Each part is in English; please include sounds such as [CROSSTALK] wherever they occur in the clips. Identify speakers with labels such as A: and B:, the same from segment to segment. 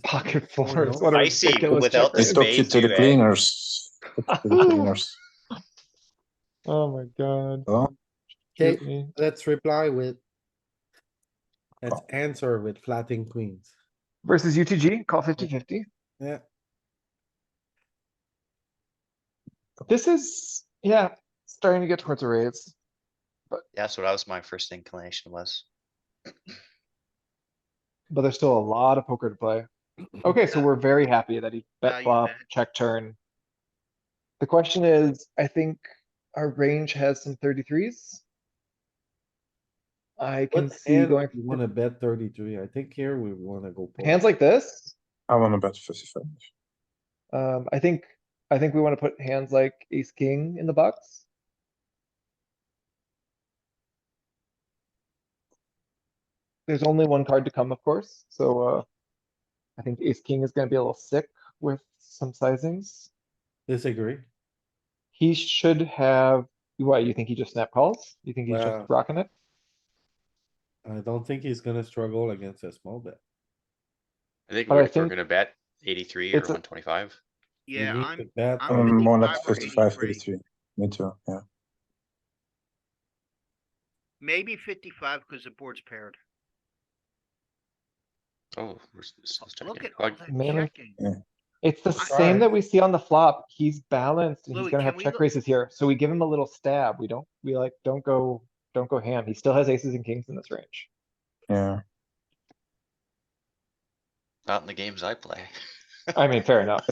A: [LAUGHS] Pocket
B: Oh, no.
A: fours. what a
C: I see,
A: ridiculous
C: without the
A: checker.
D: They
C: spades
D: took it
C: do
D: to the
C: that.
D: cleaners. Took it to the cleaners.
A: Oh my god.
D: Oh,
A: shoot
B: Okay.
A: me.
B: Let's reply with. Let's
A: Oh.
B: answer with flatting queens.
A: Versus UTG, call fifty fifty.
B: Yeah,
A: This is, yeah, starting to get towards a raise.
C: That's what I was, my first inclination was.
A: But there's still a lot of poker to
B: [CLEARS THROAT]
A: play. Okay, so we're very happy that he bet
C: Value
A: flop,
C: bet.
A: check turn. The question is, I think our range has some thirty-threes. I can
B: what
A: see
B: hand
A: going,
B: you wanna bet thirty-three? I think here we wanna go. poker.
A: hands like this,
D: I wanna bet fifty-five.
A: um, I think, I think we wanna put hands like ace, king in the box. There's only one card to come, of course, so, uh, I think ace, king is gonna be a little sick with some sizings.
B: Disagree.
A: He should have, why, you think he just snap calls? You think he's
B: Wow.
A: just rocking it?
B: I don't think he's gonna struggle against a small bet.
E: I think
A: But I
E: we're, we're
A: think
E: gonna bet eighty-three or
A: it's a-
E: one twenty-five.
B: We
F: Yeah,
B: need
F: I'm,
B: to bet
F: I'm
B: on-
D: Um, more like
F: 55 or
D: 55,
F: 83.
D: 83. Me too, yeah.
F: maybe fifty-five because the board's paired.
E: Oh, we're s- s- s-
F: Look
E: checking.
F: at all [LAUGHS]
E: Like,
A: man,
F: that checking.
A: It's the
F: I-
A: same that we see on the flop. He's balanced and he's
F: Louis,
A: gonna
F: can
A: have
F: we
A: check
F: look-
A: raises here. So we give him a little stab. We don't, we like, don't go, don't go ham. He still has aces and kings in this range.
D: Yeah,
E: Not in the games I play. [LAUGHS]
A: I mean, fair enough.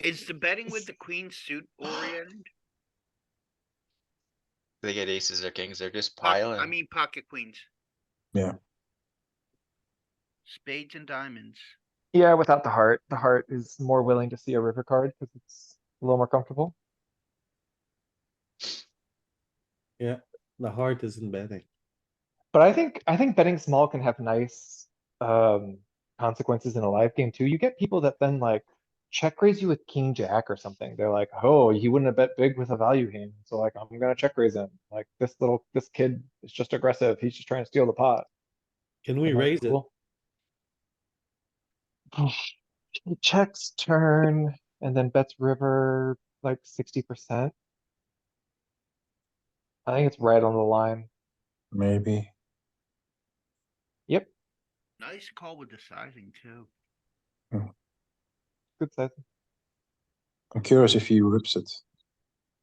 F: Is the betting with the queen suit oriented?
E: They get aces or kings, they're just
F: Po- I
E: piling.
F: mean pocket queens.
D: Yeah.
F: Spades and diamonds.
A: Yeah, without the heart, the heart is more willing to see a river card because it's a little more comfortable.
B: The heart isn't betting.
A: But I think, I think betting small can have nice, um, consequences in a live game too. You get people that then like check raise you with king jack or something. They're like, oh, he wouldn't have bet big with a value hand. So like, I'm gonna check raise him. Like this little, this kid is just aggressive. He's just trying to steal the pot.
B: Can we
A: And that's
B: raise it?
A: cool. He Oh, checks turn and then bets river like sixty percent. I think it's right on the line.
D: [LAUGHS] maybe.
F: Nice call with the sizing too.
A: Good size.
D: I'm curious if he rips it.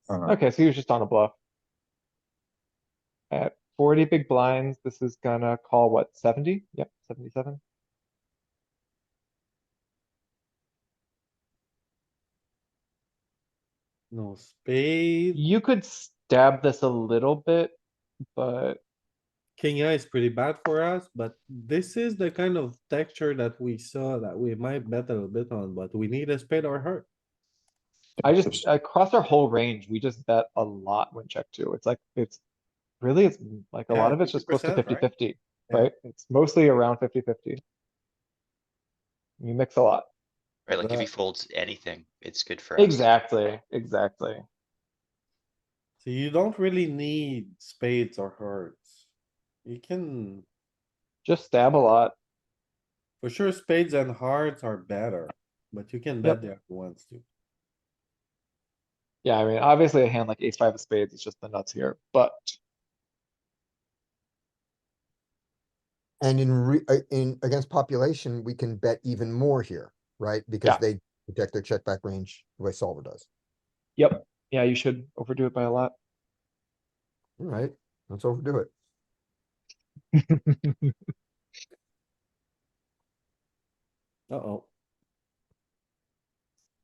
D: I don't know.
A: Okay, so he was just on a bluff. At forty big blinds, this is gonna call what, seventy? Yep, seventy-seven.
B: No spade.
A: You could stab this a little bit, but
B: King eye is pretty bad for us, but this is the kind of texture that we saw that we might bet a little bit on, but we need a spade or heart.
A: I just, across our whole range, we just bet a lot when check two. It's like, it's really, it's m- like a
B: Yeah,
A: lot of it's just close to 50
B: 50%,
A: 50,
B: Yeah.
A: right? It's mostly around 50 50. You mix a lot.
E: Right, like if he
B: that.
E: folds anything, it's good for us.
A: Exactly, exactly.
B: So you don't really need spades or hearts. You can,
A: Just stab a lot.
B: for sure, spades and hearts are better, but you can bet the other ones too.
A: Yeah, I mean, obviously a hand like ace five of spades is just the nuts here, but
G: And in re, uh, in, against population, we can bet even more here, right?
A: Yeah.
G: Because they protect their check back range the way solver does.
A: yeah, you should overdo it by a lot.
G: All right, let's overdo it.
B: Uh-oh.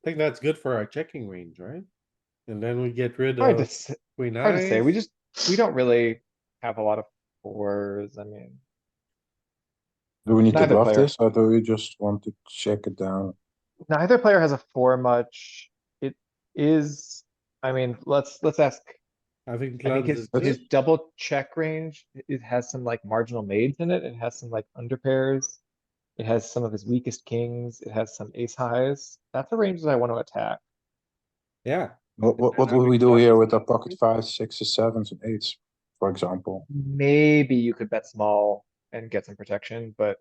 B: I think that's good for our checking range, right? And then we get rid
A: Hard to,
B: of
A: s-
B: queen
A: hard to say. We
B: nine.
A: just, we don't really have a lot of fours. I mean,
D: Do we need to
A: Neither
D: bluff
A: player.
D: this or do we just want to check it down?
A: neither player has a four much. It is, I mean, let's, let's ask.
B: I think
A: I think
B: clubs
A: his,
B: is
A: his
B: good.
A: double check range, it- it has some like marginal maids in it. It has some like under pairs. It has some of his weakest kings. It has some ace highs. That's a range that I want to attack.
B: Yeah,
D: What, what, what would we do here with our pocket fives, sixes, sevens and eights, for example?
A: Maybe you could bet small and get some protection, but